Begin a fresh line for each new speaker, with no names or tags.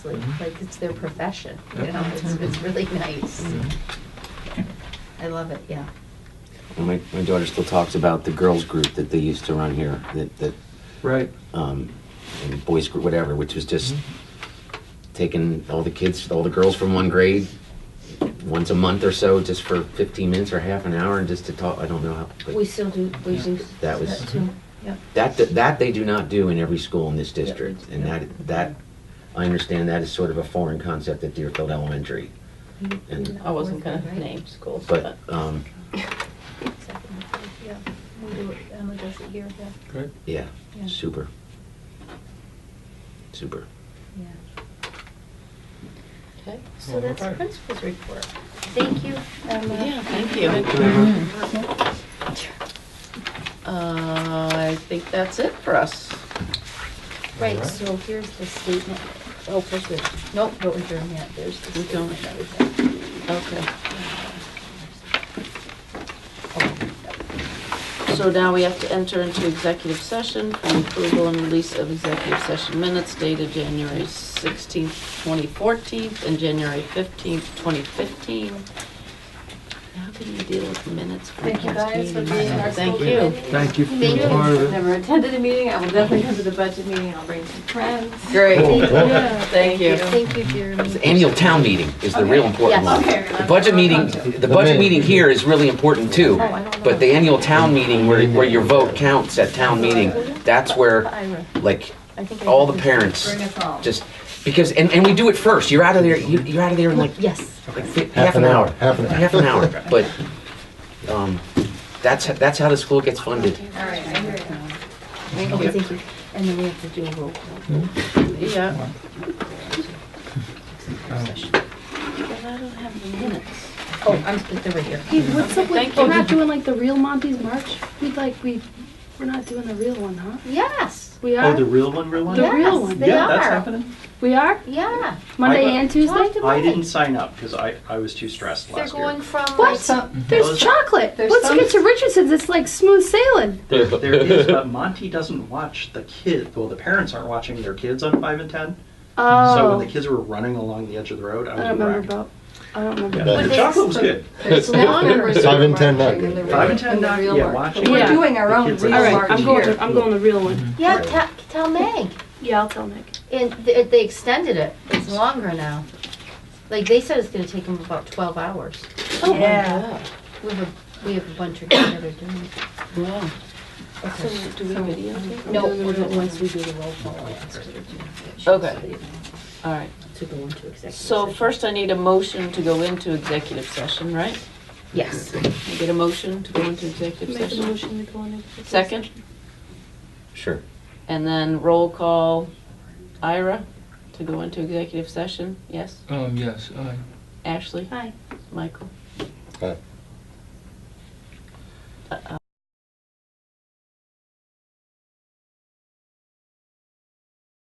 like,
Mm-hmm.
like it's their profession, you know, it's, it's really nice.
Mm-hmm.
I love it, yeah.
And my, my daughter still talks about the girls group that they used to run here, that, that,
Right.
um, and boys group, whatever, which was just
Mm-hmm.
taking all the kids, all the girls from one grade once a month or so, just for 15 minutes or half an hour, and just to talk. I don't know how. but
We still do, we do
That was- mm-hmm.
that too, yeah.
that, that that they do not do in every school in this district, and
Yeah.
that that I understand that is sort of a foreign concept at Deerfield Elementary. And-
I wasn't gonna name schools,
But
but
um,
Yeah, we do it, Emma does it here, yeah.
Great.
yeah,
Yeah.
super, super.
Yeah.
okay.
So that's the
Okay.
principal's report. Thank you, Emma.
Yeah, thank you. Uh, I think that's it for us.
Right,
Alright.
so here's the statement. Oh, first, wait, nope, don't adjourn yet, there's the
We don't.
statement. and everything.
Okay.
Oh,
So now we have to enter into executive session for approval and release of executive session minutes dated January 16th, 2014, and January 15th, 2015. How can you deal with minutes from
Thank you
past
guys for
meetings?
being our school
Thank
committee.
you.
Thank you for
Thank
being
you.
part
I've
of it.
never attended a meeting. I will definitely come to the budget meeting. I'll bring some friends.
Great,
Yeah.
thank you.
Thank you, Jeremy.
The annual town meeting is the real important
Yes.
one.
Okay.
The budget meeting, the budget meeting here is really important too.
Oh, I don't
But
know.
the annual town meeting where, where your vote counts at town meeting, that's where,
Ira,
like,
I think I
all
have
the
this-
parents
Bring us all.
just, because, and, and we do it first. You're out of there, you- you're out of there in like,
Yes.
like fi- half an hour.
Half an hour.
Half an hour, but, um, that's, that's how the school gets funded.
All right, I hear you.
Okay, thank you. And then we have to do a roll
Hmm?
call.
Yeah.
Um,
But I don't have the minutes.
Oh, I'm, but they're right here.
Hey, what's up
Thank
with, we're
you.
not doing like the real Monty's March? We like, we, we're not doing the real one, huh?
Yes,
We
Oh, the
are,
real one, real one?
The real
yes,
one.
they
Yeah, that's
are.
happening.
we are,
Yeah.
Monday
I- uh,
and
Talk
Tuesday?
to
I didn't
Mike.
sign up because I, I was too stressed
They're
last
going
year.
from. like,
What? There's
Those-
chocolate.
there's
Let's
some-
get to Richardson's, it's like smooth sailing.
There, there is, but Monty doesn't watch the kid. Well, the parents aren't watching their kids on five and ten. So when
Oh,
the kids were running along the edge of the road, I
I
was
don't remember
wrecked.
about, I don't remember.
Yeah,
But
the
they-
chocolate was good.
There's longer.
Five and ten not good.
Five and ten, not- yeah, watching.
We're
Yeah.
doing our
The
own
kids
real
are
All right,
March
I'm going,
here.
to- I'm going the real one.
Yeah, tell, tell Meg.
Yeah, I'll tell Nick.
And they, they extended it. It's longer now. Like they said, it's going to take them about 12 hours.
Oh, my
Yeah.
God.
We have a we have a bunch of kids that are doing it.
Wow.
Okay.
So do we videotape?
No, we'll do it once we do the roll call. I'll ask her to do it.
Okay. All right.
To go into executive.
So
session.
first I need a motion to go into executive session, right?
Yes.
Can I get a motion to go into executive
Make a
session?
motion to go on. the-
Second,
Sure.
and then roll call Ira to go into executive session, yes?
Um, yes, I.
Ashley?
Aye.
Michael?
Aye.
Uh,